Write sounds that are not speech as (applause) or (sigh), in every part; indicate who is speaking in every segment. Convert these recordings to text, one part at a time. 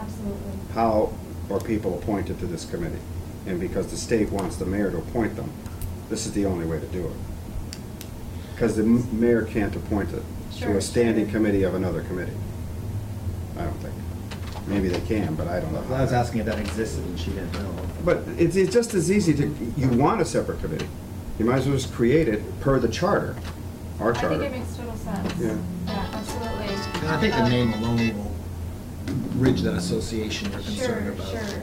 Speaker 1: Absolutely.
Speaker 2: how are people appointed to this committee? And because the state wants the mayor to appoint them, this is the only way to do it. Because the m- mayor can't appoint it to
Speaker 1: Sure.
Speaker 2: a standing committee of another committee. I don't think. Maybe they can, but I don't know.
Speaker 3: Well, I was asking if that existed and she didn't know.
Speaker 2: But it's, it's just as easy to, you want a separate committee. You might as well just create it per the charter, our
Speaker 1: I think it
Speaker 2: charter.
Speaker 1: makes total sense.
Speaker 2: Yeah.
Speaker 1: Yeah, absolutely.
Speaker 3: And I think the name alone will bridge that association you're concerned
Speaker 1: Sure,
Speaker 3: about.
Speaker 1: sure.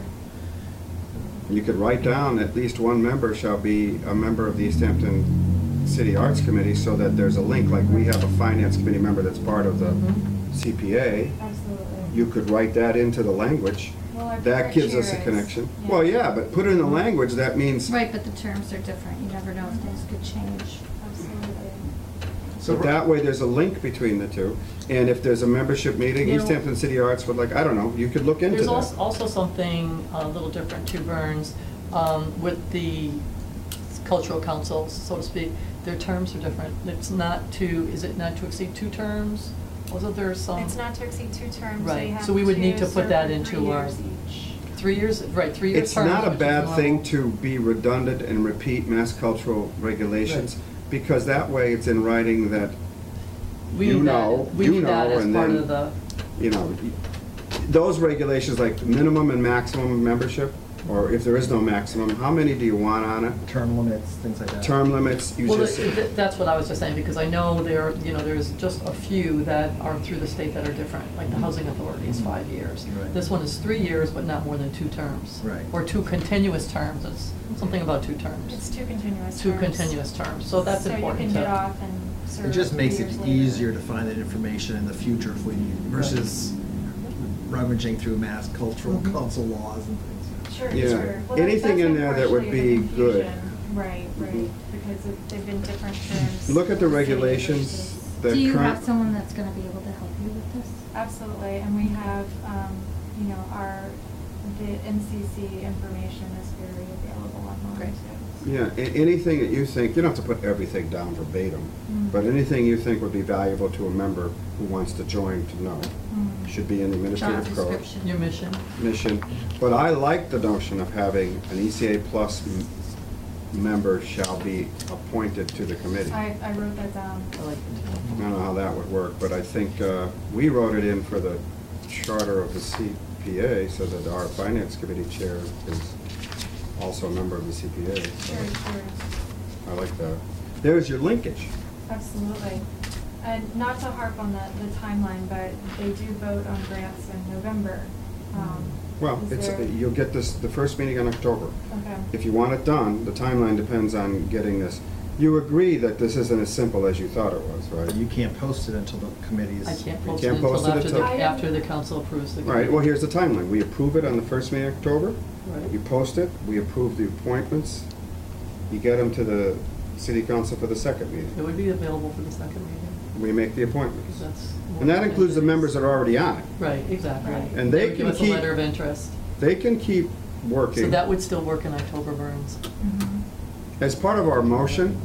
Speaker 2: You could write down, at least one member shall be a member of the East Hampton City Arts Committee so that there's a link, like we have a finance committee member that's part of the
Speaker 4: Mm-hmm.
Speaker 2: CPA.
Speaker 1: Absolutely.
Speaker 2: You could write that into the language.
Speaker 4: Oh,
Speaker 1: Well, our
Speaker 2: That
Speaker 1: current
Speaker 2: gives us a
Speaker 1: chair is-
Speaker 2: connection.
Speaker 1: yeah.
Speaker 2: Well, yeah, but put it in the language, that means,
Speaker 5: Right, but the terms are different. You never know if things could change.
Speaker 1: Absolutely.
Speaker 2: so that way there's a link between the two. And if there's a membership meeting,
Speaker 4: You
Speaker 2: East
Speaker 4: know-
Speaker 2: Hampton City Arts would like, I don't know, you could look into that.
Speaker 4: There's als- also something a little different to Burns um, with the cultural councils, so to speak. Their terms are different. It's not to, is it not to exceed two terms? Wasn't there some?
Speaker 1: It's not to exceed two terms, so you
Speaker 4: Right,
Speaker 1: have
Speaker 4: so we would need to
Speaker 1: to serve
Speaker 4: put that
Speaker 1: for three
Speaker 4: into our,
Speaker 1: years each.
Speaker 4: three years, right, three years.
Speaker 2: It's not a bad thing to be redundant and repeat mass cultural regulations, because that way it's in writing that,
Speaker 4: We
Speaker 2: you
Speaker 4: need that-
Speaker 2: know,
Speaker 4: we
Speaker 2: you
Speaker 4: need that
Speaker 2: know,
Speaker 4: as
Speaker 2: and
Speaker 4: part
Speaker 2: then-
Speaker 4: of the,
Speaker 2: you know, those regulations like minimum and maximum membership, or if there is no maximum, how many do you want on it?
Speaker 3: Term limits, things like that.
Speaker 2: Term limits, you
Speaker 4: well,
Speaker 2: just,
Speaker 4: th- th- that's what I was just saying, because I know there, you know, there's just a few that are through the state that are different, like the housing authority is five years.
Speaker 3: Right.
Speaker 4: This one is three years, but not more than two terms.
Speaker 3: Right.
Speaker 4: Or two continuous terms, it's something about two
Speaker 1: It's
Speaker 4: terms.
Speaker 1: two continuous terms.
Speaker 4: Two continuous terms, so that's important
Speaker 1: So you can get
Speaker 4: to,
Speaker 1: off and serve
Speaker 3: It just makes
Speaker 1: three
Speaker 3: it
Speaker 1: years later.
Speaker 3: easier to find that information in the future if we need, versus rummaging through mass cultural
Speaker 4: Mhm.
Speaker 3: council laws and things.
Speaker 1: Mm-hmm. Sure, sure.
Speaker 2: Yeah.
Speaker 1: Well, that-
Speaker 2: Anything
Speaker 1: that's
Speaker 2: in there that would
Speaker 1: partially the
Speaker 2: be good.
Speaker 1: confusion. Right, right,
Speaker 2: Mhm.
Speaker 1: because it- they've been different terms.
Speaker 2: look at the
Speaker 1: city
Speaker 2: regulations,
Speaker 1: versus-
Speaker 2: the current.
Speaker 5: Do you have someone that's gonna be able to help you with this?
Speaker 1: Absolutely, and we have, um, you know, our, the NCC information is very available online
Speaker 4: Great.
Speaker 1: too.
Speaker 2: Yeah, a- anything that you think, you don't have to put everything down verbatim,
Speaker 1: Mm.
Speaker 2: but anything you think would be valuable to a member who wants to join to know,
Speaker 1: Mm.
Speaker 2: should be in the
Speaker 5: Job
Speaker 2: administrative code.
Speaker 5: description.
Speaker 4: your mission.
Speaker 2: mission, but I like the notion of having an ECA plus m- member shall be appointed to the committee. I
Speaker 1: I, I wrote that down.
Speaker 4: I
Speaker 2: Oh.
Speaker 4: like it.
Speaker 2: don't know how that would work, but I think uh, we wrote it in for the charter of the CPA so that our finance committee chair is also a member of the CPA.
Speaker 1: Sure,
Speaker 2: so
Speaker 1: sure,
Speaker 2: I like that. There's your linkage.
Speaker 1: absolutely. And not to harp on the, the timeline, but they do vote on grants in November. Um,
Speaker 2: Mm-hmm. Well,
Speaker 1: is
Speaker 2: it's,
Speaker 1: there-
Speaker 2: you'll get this, the first meeting in October.
Speaker 1: Okay,
Speaker 2: If you want it done, the timeline depends on getting this. You agree that this isn't as simple as you thought it was, right?
Speaker 3: But you can't post it until the committee's.
Speaker 4: I can't
Speaker 2: You
Speaker 4: post it
Speaker 2: can't post
Speaker 4: until
Speaker 2: it
Speaker 4: after the,
Speaker 1: until-
Speaker 4: after the council approves the.
Speaker 2: All right, well, here's the timeline. We approve it on the first meeting in October.
Speaker 4: Right.
Speaker 2: You post it, we approve the appointments. You get them to the city council for the second
Speaker 4: It
Speaker 2: meeting.
Speaker 4: would be available for the second meeting,
Speaker 2: We make the
Speaker 4: because
Speaker 2: appointments.
Speaker 4: that's.
Speaker 2: And that includes the members that are already on it.
Speaker 4: Right, exactly.
Speaker 1: Right.
Speaker 2: And they
Speaker 4: would
Speaker 2: can
Speaker 4: Give us a
Speaker 2: keep-
Speaker 4: letter of interest.
Speaker 2: They can keep
Speaker 4: So
Speaker 2: working.
Speaker 4: that would still work in October burns.
Speaker 1: mhm,
Speaker 2: As part of our motion,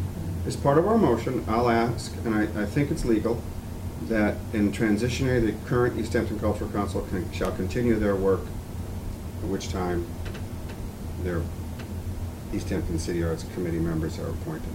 Speaker 2: as part of our motion, I'll ask, and I, I think it's legal, that in transitionary, the current East Hampton Cultural Council can, shall continue their work, at which time their East Hampton City Arts Committee members are appointed.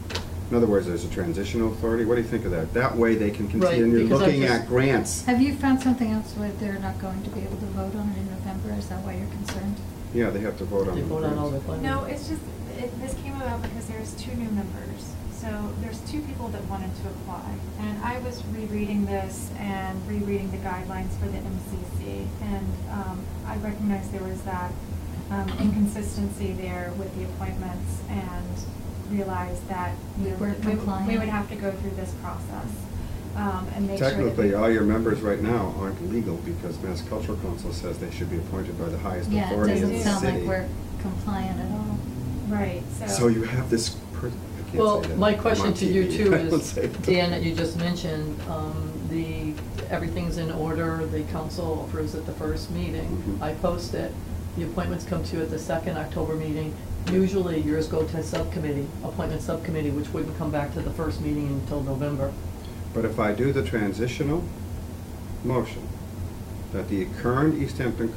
Speaker 2: In other words, there's a transitional authority. What do you think of that? That way they can
Speaker 4: Right,
Speaker 2: continue
Speaker 4: because I
Speaker 2: looking
Speaker 4: just-
Speaker 2: at grants.
Speaker 5: Have you found something else where they're not going to be able to vote on it in November? Is that why you're concerned?
Speaker 2: Yeah, they have to vote on
Speaker 4: They
Speaker 2: the
Speaker 4: vote on all the
Speaker 2: grants.
Speaker 4: funding.
Speaker 1: No, it's just, it, this came about because there's two new members. So there's two people that wanted to apply. And I was rereading this and rereading the guidelines for the MCC. And, um, I recognized there was that, um, inconsistency there with the appointments and realized that, you
Speaker 5: We
Speaker 1: know,
Speaker 5: weren't
Speaker 1: we- we
Speaker 5: compliant.
Speaker 1: would have to go through this process, um, and make sure that.
Speaker 2: Technically,
Speaker 1: we-
Speaker 2: all your members right now aren't legal because Mass Cultural Council says they should be appointed by the highest
Speaker 5: Yeah, it
Speaker 2: authority in the city.
Speaker 5: doesn't sound like we're compliant at all.
Speaker 1: Right, so.
Speaker 2: So you have this person, I can't say
Speaker 4: Well,
Speaker 2: that.
Speaker 4: my
Speaker 2: I'm
Speaker 4: question
Speaker 2: on
Speaker 4: to you
Speaker 2: TV. (laughs)
Speaker 4: too
Speaker 2: I don't
Speaker 4: is,
Speaker 2: say that.
Speaker 4: Dan, that you just mentioned, um, the, everything's in order, the council approves at the first meeting.
Speaker 2: Mhm.
Speaker 4: I post it, the appointments come to you at the second October meeting. Usually yours go to subcommittee, appointment subcommittee, which wouldn't come back to the first meeting until November.
Speaker 2: But if I do the transitional motion, that the current East Hampton